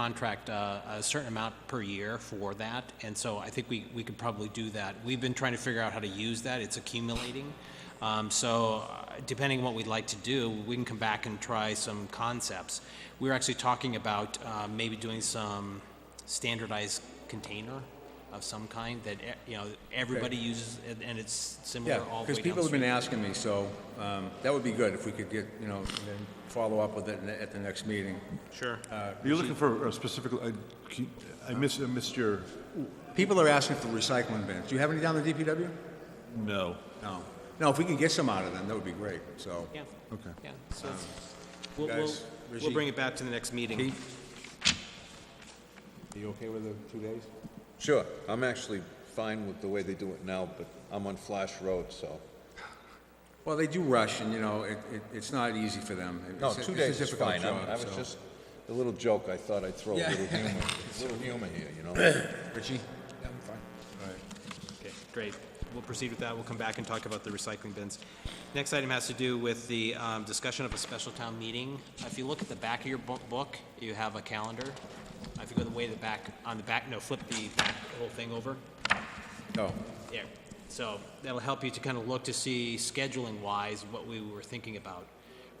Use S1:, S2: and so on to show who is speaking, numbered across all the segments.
S1: contract uh, a certain amount per year for that, and so I think we, we could probably do that. We've been trying to figure out how to use that, it's accumulating. Um, So uh, depending on what we'd like to do, we can come back and try some concepts. We were actually talking about uh, maybe doing some standardized container of some kind that, eh, you know, everybody uses, and- and it's similar all
S2: Yeah,
S1: the way down.
S2: because people have been asking me, so um, that would be good if we could get, you know, and then follow up with it in the- at the next meeting.
S1: Sure.
S2: Uh,
S3: You're looking for a specific, I keep- I missed, I missed your,
S2: People are asking for recycling bins. Do you have any down at DPW?
S3: no.
S2: No. No, if we can get some out of them, that would be great, so.
S1: Yeah.
S3: Okay.
S1: Yeah, so we'll, we'll,
S2: Um, guys,
S1: we'll
S2: Rajiv.
S1: bring it back to the next meeting.
S3: Are you okay with the two days?
S4: Sure, I'm actually fine with the way they do it now, but I'm on Flash Road, so.
S2: Well, they do rush, and, you know, it, it- it's not easy for them. It's
S4: No,
S2: a-
S4: two
S2: it's a
S4: days is
S2: difficult
S4: fine. I'm-
S2: job,
S4: I was
S2: so.
S4: just, a little joke, I thought I'd throw a
S2: Yeah.
S4: little humor, a little humor here, you know?
S2: Richie?
S1: Okay, great. We'll proceed with that. We'll come back and talk about the recycling bins. Next item has to do with the um, discussion of a special town meeting. If you look at the back of your bo- book, you have a calendar. If you go the way to the back, on the back, no, flip the back whole thing over.
S2: Oh,
S1: Yeah, so that'll help you to kind of look to see scheduling-wise what we were thinking about.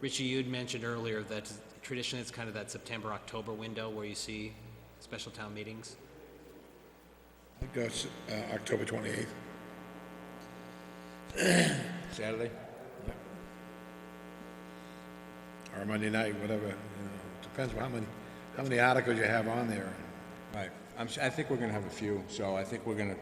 S1: Richie, you'd mentioned earlier that traditionally it's kind of that September, October window where you see special town meetings.
S5: I think that's uh, October 28th.
S2: Saturday?
S5: Or Monday night, whatever, you know, depends on how many, how many articles you have on there.
S2: Right. I'm, s- I think we're gonna have a few, so I think we're gonna,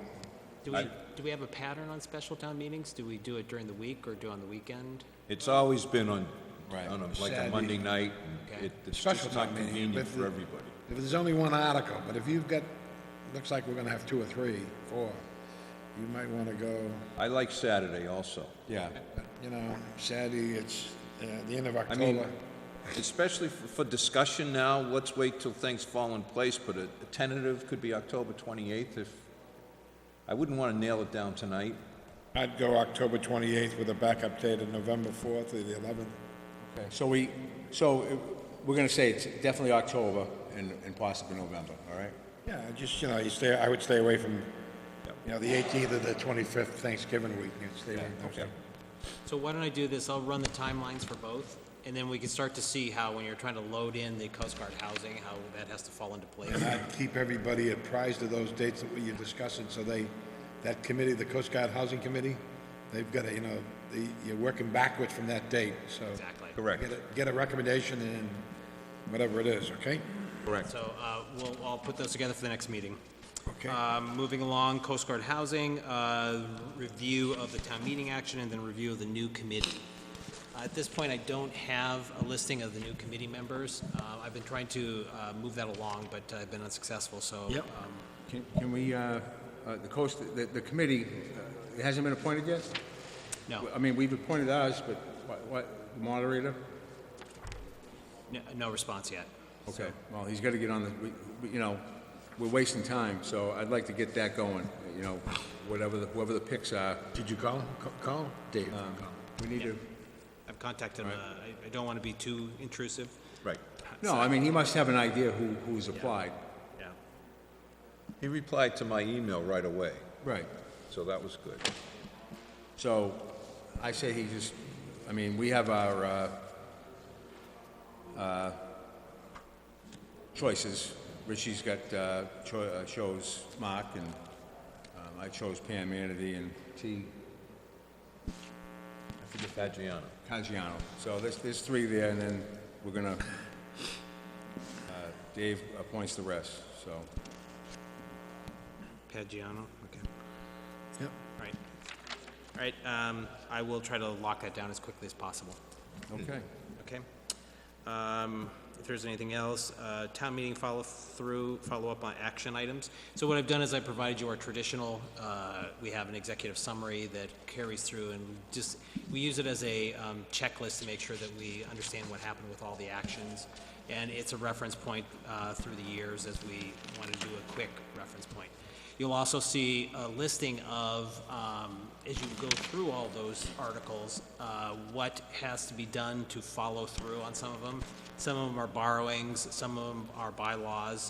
S1: Do we, do we have a pattern on special town meetings? Do we do it during the week or do on the weekend?
S4: It's always been on,
S2: Right.
S4: on a- like a
S5: Saturday.
S4: Monday night, and
S1: Okay.
S4: it- it's
S5: Special
S4: just not
S5: town meeting,
S4: convenient
S5: but
S4: for
S5: the-
S4: everybody.
S5: If there's only one article, but if you've got, looks like we're gonna have two or three, four, you might wanna go,
S4: I like Saturday also,
S2: yeah.
S5: you know, Saturday, it's uh, the end of
S4: I mean-
S5: October.
S4: especially for for discussion now, let's wait till things fall in place, but a a tentative could be October 28th if, I wouldn't want to nail it down tonight.
S5: I'd go October 28th with a backup date of November 4th or the 11th.
S2: Okay. So we, so uh, we're gonna say it's definitely October and, and possibly November, all right?
S5: Yeah, I just, you know, you stay, I would stay away from, you know, the 18th or the 25th Thanksgiving week, you know, stay away from those.
S1: So why don't I do this? I'll run the timelines for both, and then we can start to see how, when you're trying to load in the Coast Guard housing, how that has to fall into place.
S5: And I'd keep everybody apprised of those dates that you're discussing, so they, that committee, the Coast Guard Housing Committee, they've got to, you know, the, you're working backwards from that date, so.
S1: Exactly.
S4: Correct.
S5: Get a, get a recommendation and whatever it is, okay?
S4: Correct.
S1: So, uh, we'll, I'll put those together for the next meeting.
S5: Okay.
S1: Um, moving along, Coast Guard housing, uh, review of the town meeting action, and then review of the new committee. Uh, At this point, I don't have a listing of the new committee members. Uh, I've been trying to, uh, move that along, but I've been unsuccessful, so.
S2: Yep.
S1: um,
S2: Can, can we, uh, uh, the coast, the, the committee, uh, it hasn't been appointed yet?
S1: No,
S2: I mean, we've appointed ours, but what, what, the moderator?
S1: no, no response yet.
S2: Okay, well, he's gotta get on the, we- we, you know, we're wasting time, so I'd like to get that going, you know, whatever, the whoever the picks are, Um,
S5: Did you call? C- Call? Dave?
S2: we need to,
S1: I've contacted him. Uh, I, I don't want to be too intrusive.
S4: Right.
S2: no, I mean, he must have an idea who, who's applied.
S1: Yeah.
S4: He replied to my email right away,
S2: Right.
S4: so that was good.
S2: So, I say he just, I mean, we have our, uh, uh, choices. Richie's got, uh, cho- uh, chose Mark, and, um, I chose Pam Anady and T.
S4: Fagiano.
S2: Caggiano. So there's, there's three there, and then we're gonna, uh, Dave appoints the rest, so.
S1: Pagiano, okay.
S5: Yep.
S1: All right. All right, um, I will try to lock that down as quickly as possible.
S2: Okay.
S1: Okay? Um, If there's anything else, uh, town meeting follow-through, follow-up on action items. So what I've done is I provided you our traditional, uh, we have an executive summary that carries through and just, we use it as a um, checklist to make sure that we understand what happened with all the actions. And it's a reference point uh, through the years as we want to do a quick reference point. You'll also see a listing of, um, as you go through all those articles, uh, what has to be done to follow through on some of them. Some of them are borrowings, some of them are bylaws,